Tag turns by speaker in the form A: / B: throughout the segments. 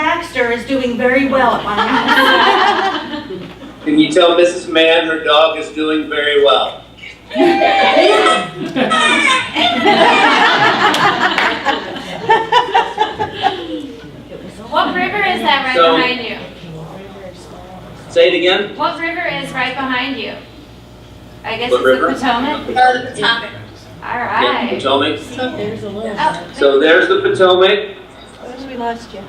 A: hamster is doing very well at my house.
B: Can you tell Mrs. Mann her dog is doing very well?
C: What river is that right
B: So-
C: behind you?
B: Say it again.
C: What river is right behind you? I guess
B: What
C: it's
B: river?
C: the Potomac?
D: Uh, topic.
C: All
B: Yeah,
C: right.
B: Potomac.
D: There's a little.
C: Oh,
B: So there's the Potomac.
A: We lost you.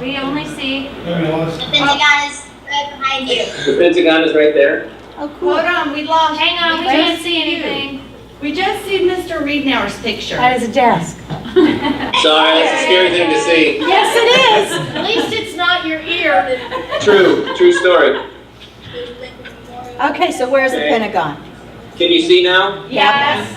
C: we only see,
E: The Pentagon is right behind you.
B: The Pentagon is right there.
A: Oh, cool. Hold on, we lost.
C: hang on, we
A: Where's
C: can't see
A: you?
C: anything.
A: We just see Mr. Reednauer's picture.
F: That is a desk.
B: Sorry, that's a scary thing to see.
A: Yes, it is.
D: At least it's not your ear.
B: True, true story.
F: Okay, so where's the
B: Okay.
F: Pentagon?
B: Can you see now?
C: Yes.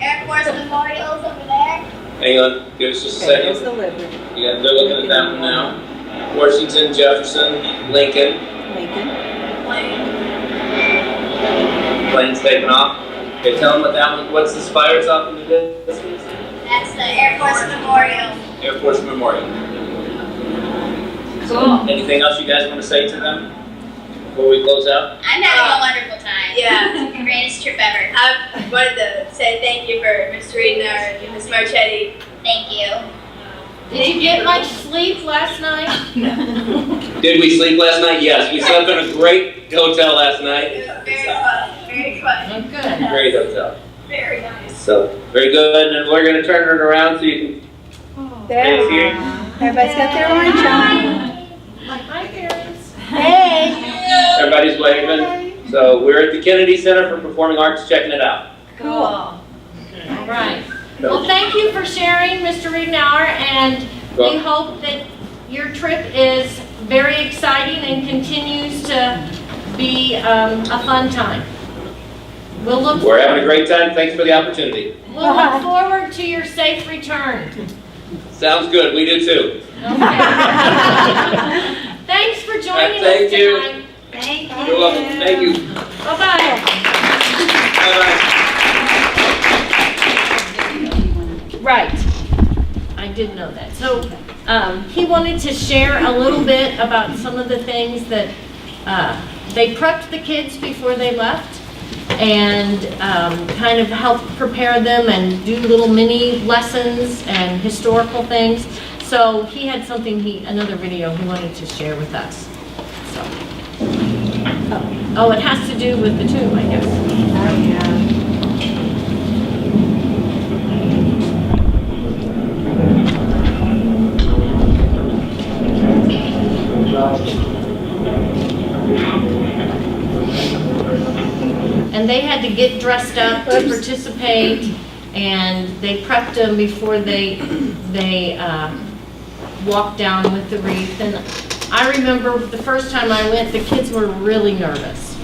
E: Air Force Memorial's over there.
B: Hang on, give us just a
F: Okay, there's
B: second.
F: the library,
B: Yeah, they're looking at that one now. Washington, Jefferson, Lincoln,
F: Lincoln.
B: planes taking off. Okay, tell them what that one, what's the spires off in the distance?
E: That's the Air Force Memorial.
B: Air Force Memorial.
C: Cool.
B: Anything else you guys want to say to them before we close out?
E: I'm having a wonderful time.
G: Oh. Yeah,
E: It's the greatest trip ever.
G: I wanted to say thank you for Miss Reedner and Miss Marchetti.
E: Thank you.
D: Did you get much sleep last night?
B: Did we sleep last night? Yes, we slept in a great hotel last night.
G: It was very fun, very fun,
D: Good.
B: Great hotel.
G: very nice.
B: So very good, and we're gonna turn it around so you can
F: There,
B: see here.
F: everybody's got their orange on.
D: Like my parents.
F: Hey,
B: Everybody's waving. So we're at the Kennedy Center for Performing Arts, checking it out.
D: Cool. All right. Well, thank you for sharing, Mr. Redenauer, and we
B: Well,
D: hope that your trip is very exciting and continues to be um, a fun time. We'll look,
B: We're having a great time. Thanks for the opportunity.
D: we'll look forward to your safe return.
B: Sounds good. We do too.
D: Okay. Thanks for joining us
B: Thank you.
D: tonight.
E: Thank you.
B: You're welcome. Thank you.
D: Bye-bye.
B: Bye bye.
D: Right. I did know that. So um, he wanted to share a little bit about some of the things that uh, they prepped the kids before they left and um, kind of helped prepare them and do little mini lessons and historical things. So he had something he, another video he wanted to share with us. So, Oh, it has to do with the tomb, I guess. And they had to get dressed up to participate, and they prepped them before they, they uh, walked down with the wreath. And I remember the first time I went, the kids were really nervous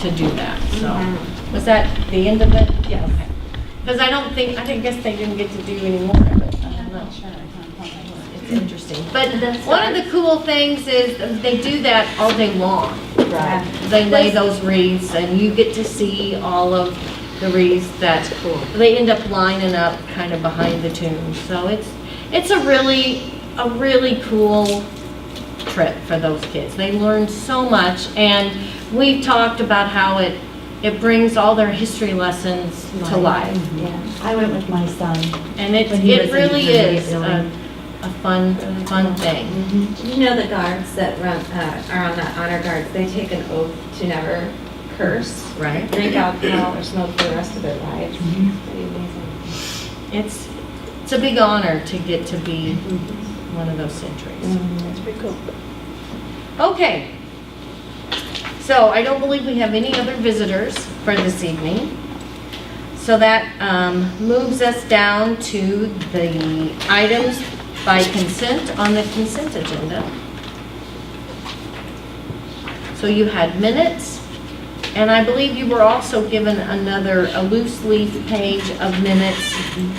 D: to do that, so. Was that the end of it? Yeah. Because I don't think, I didn't guess they didn't get to do any more of it. I don't know. It's interesting. But one of the cool things is they do that all day long
F: Right.
D: they lay those wreaths and you get to see all of the wreaths that they end up lining up kind of behind the tomb. So it's, it's a really, a really cool trip for those kids. They learn so much and we've talked about how it, it brings all their history lessons to life.
F: Yeah, I went with my son.
D: And it's,
F: When he
D: it
F: was in
D: really
F: Virginia,
D: is a,
F: really.
D: a fun, fun thing.
H: You know the guards that run, uh, are on the honor guards, they take an oath to never curse,
D: Right.
H: drink alcohol, or smoke for the rest of their lives. Pretty amazing.
D: It's, it's a big honor to get to be one of those centuries.
F: That's pretty cool.
D: Okay. So I don't believe we have any other visitors for this evening. So that um, moves us down to the items by consent on the consent agenda. So you had minutes, and I believe you were also given another, a loose leaf page of minutes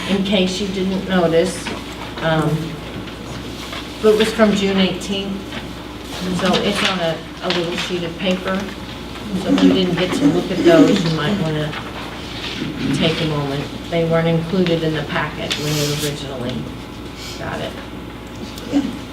D: in case you didn't notice. Um, But it was from June 18th. So it's on a, a little sheet of paper, so if you didn't get to look at those, you might want to take a moment. They weren't included in the packet when you originally got it.